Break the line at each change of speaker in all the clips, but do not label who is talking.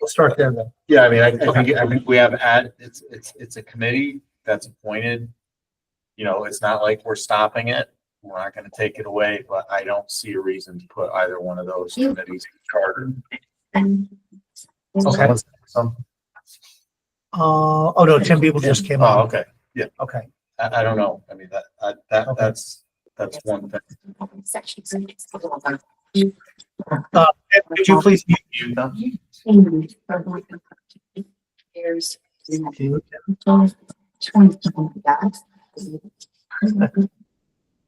We'll start there then.
Yeah, I mean, I I think, I think we have at, it's, it's, it's a committee that's appointed. You know, it's not like we're stopping it. We're not gonna take it away, but I don't see a reason to put either one of those committees in charter.
Okay.
Some,
Uh, oh no, ten people just came
oh,
on.
okay.
Okay.
I, I don't know. I mean, that, I- that, that's, that's one thing.
Ed, Could you please mute?
You, though?
There's.
Can you-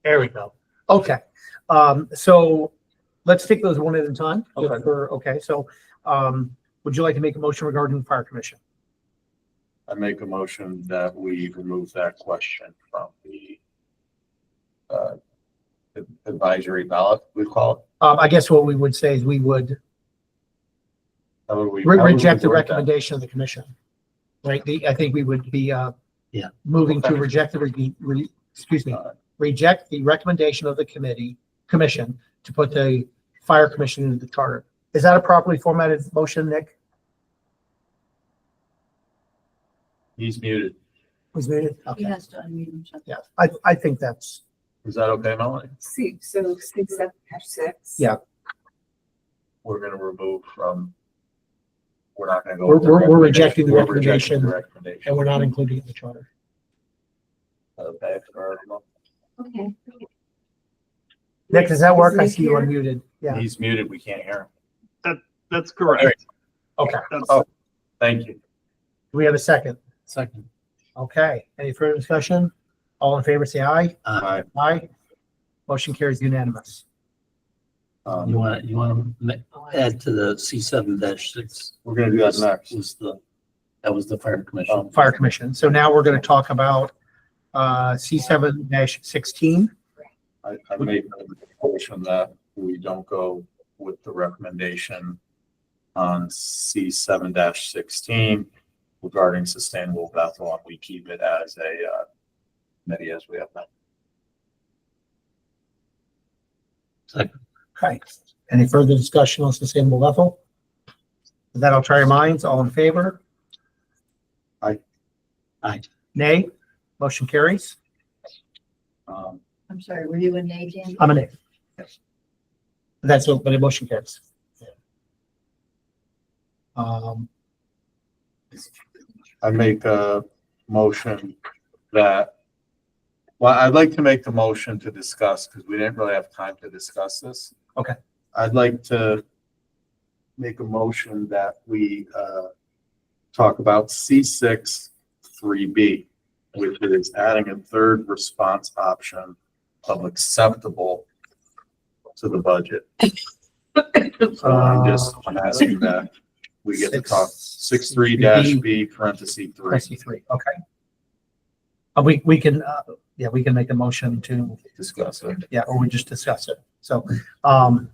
There we go. Okay. Um, so let's take those one at a time. just
Okay.
for- okay, so, um, would you like to make a motion regarding fire commission?
I make a motion that we remove that question from the uh, advisory ballot, we call it.
Um, I guess what we would say is we would
How would we-
re-
how would we
reject the
word that?
recommendation of the commission. Right? The, I think we would be, uh,
Yeah.
moving to
Okay.
reject the, re- re- excuse me,
Uh,
reject the recommendation of the committee, commission to put the fire commission into the charter. Is that a properly formatted motion, Nick?
He's muted.
Was it? Okay.
has to unmute himself.
Yeah, I, I think that's,
Is that okay, Melanie?
See, so six, seven, dash six.
Yeah.
We're gonna remove from, we're not gonna go.
We're-
with the
we're- we're
recommendation.
rejecting the
We're rejecting
recommendation.
the Recommendation.
and we're not including it in the charter.
Okay, for-
Okay.
Nick, does that work? I
Is Nick
see you
here?
unmuted. Yeah.
He's muted, we can't hear him.
That's correct.
Okay.
That's-
Oh. Thank you.
Do we have a second?
Second.
Okay. Any further discussion? All in favor, say aye.
Hi.
Uh,
Aye. Motion carries unanimous.
Um,
You want, you want to add to the C seven dash six?
We're gonna do that next.
Was the, that was the fire commission.
Fire Commission. So now we're going to talk about, uh, C seven dash sixteen.
I, I made a motion that we don't go with the recommendation on C seven sixteen regarding sustainable Bethel, and we keep it as a, uh, committee as we have now.
Okay. Any further discussion on sustainable Bethel? With That I'll try your minds. All in favor?
Aye.
Aye.
Nay. Motion carries.
Um,
I'm sorry, were you a nay,
Oh,
Dan?
I'm a nay. That's what, but a motion carries. Um,
I make a motion that, well, I'd like to make the motion to discuss, because we didn't really have time to discuss this.
Okay.
I'd like to make a motion that we, uh, talk about C six three B, which is adding a third response option of acceptable to the budget. So I'm just asking that we get to talk six three dash B parentheses three,
Christie three, okay. Uh, we, we can, uh, yeah, we can make a motion to,
discuss it.
yeah, or we just discuss it. So, um,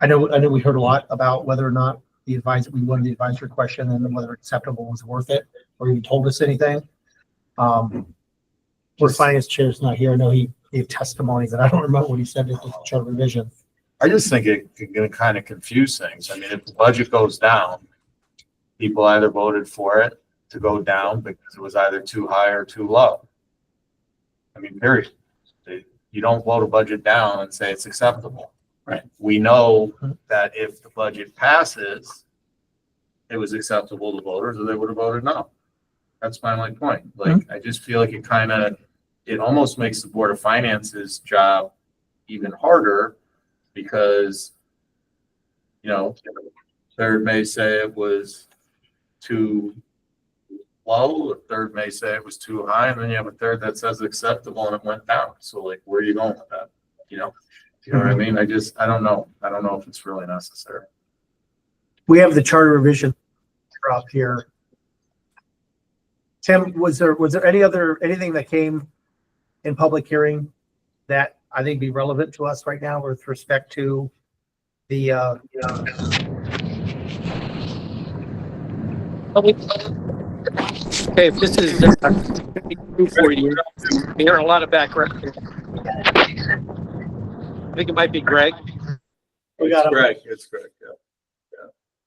I know, I know we heard a lot about whether or not the advice, we wanted the advisory question and whether acceptable was worth it or even told us anything. Um, our finance chair's not here. I know he gave testimony, but I don't remember what he said at the charter revision.
I just think it it can kind of confuse things. I mean, if the budget goes down, people either voted for it to go down because it was either too high or too low. I mean, period. They- You don't vote a budget down and say it's acceptable.
Right.
We know that if the budget passes, it was acceptable to voters or they would have voted no. That's my only point. Like, I just feel like it kind of, it almost makes the Board of Finance's job even harder because, you know, third may say it was too low, a third may say it was too high, and then you have a third that says acceptable and it went down. So like, where are you going with that? You know, you know what I mean? I just, I don't know. I don't know if it's really necessary.
We have the charter revision up here. Tim, was there, was there any other, anything that came in public hearing that I think be relevant to us right now with respect to the, uh,
Okay, if this is uh, for you, we hear a lot of background. I think it might be Greg.
we got, a-
Greg, it's Greg, yeah.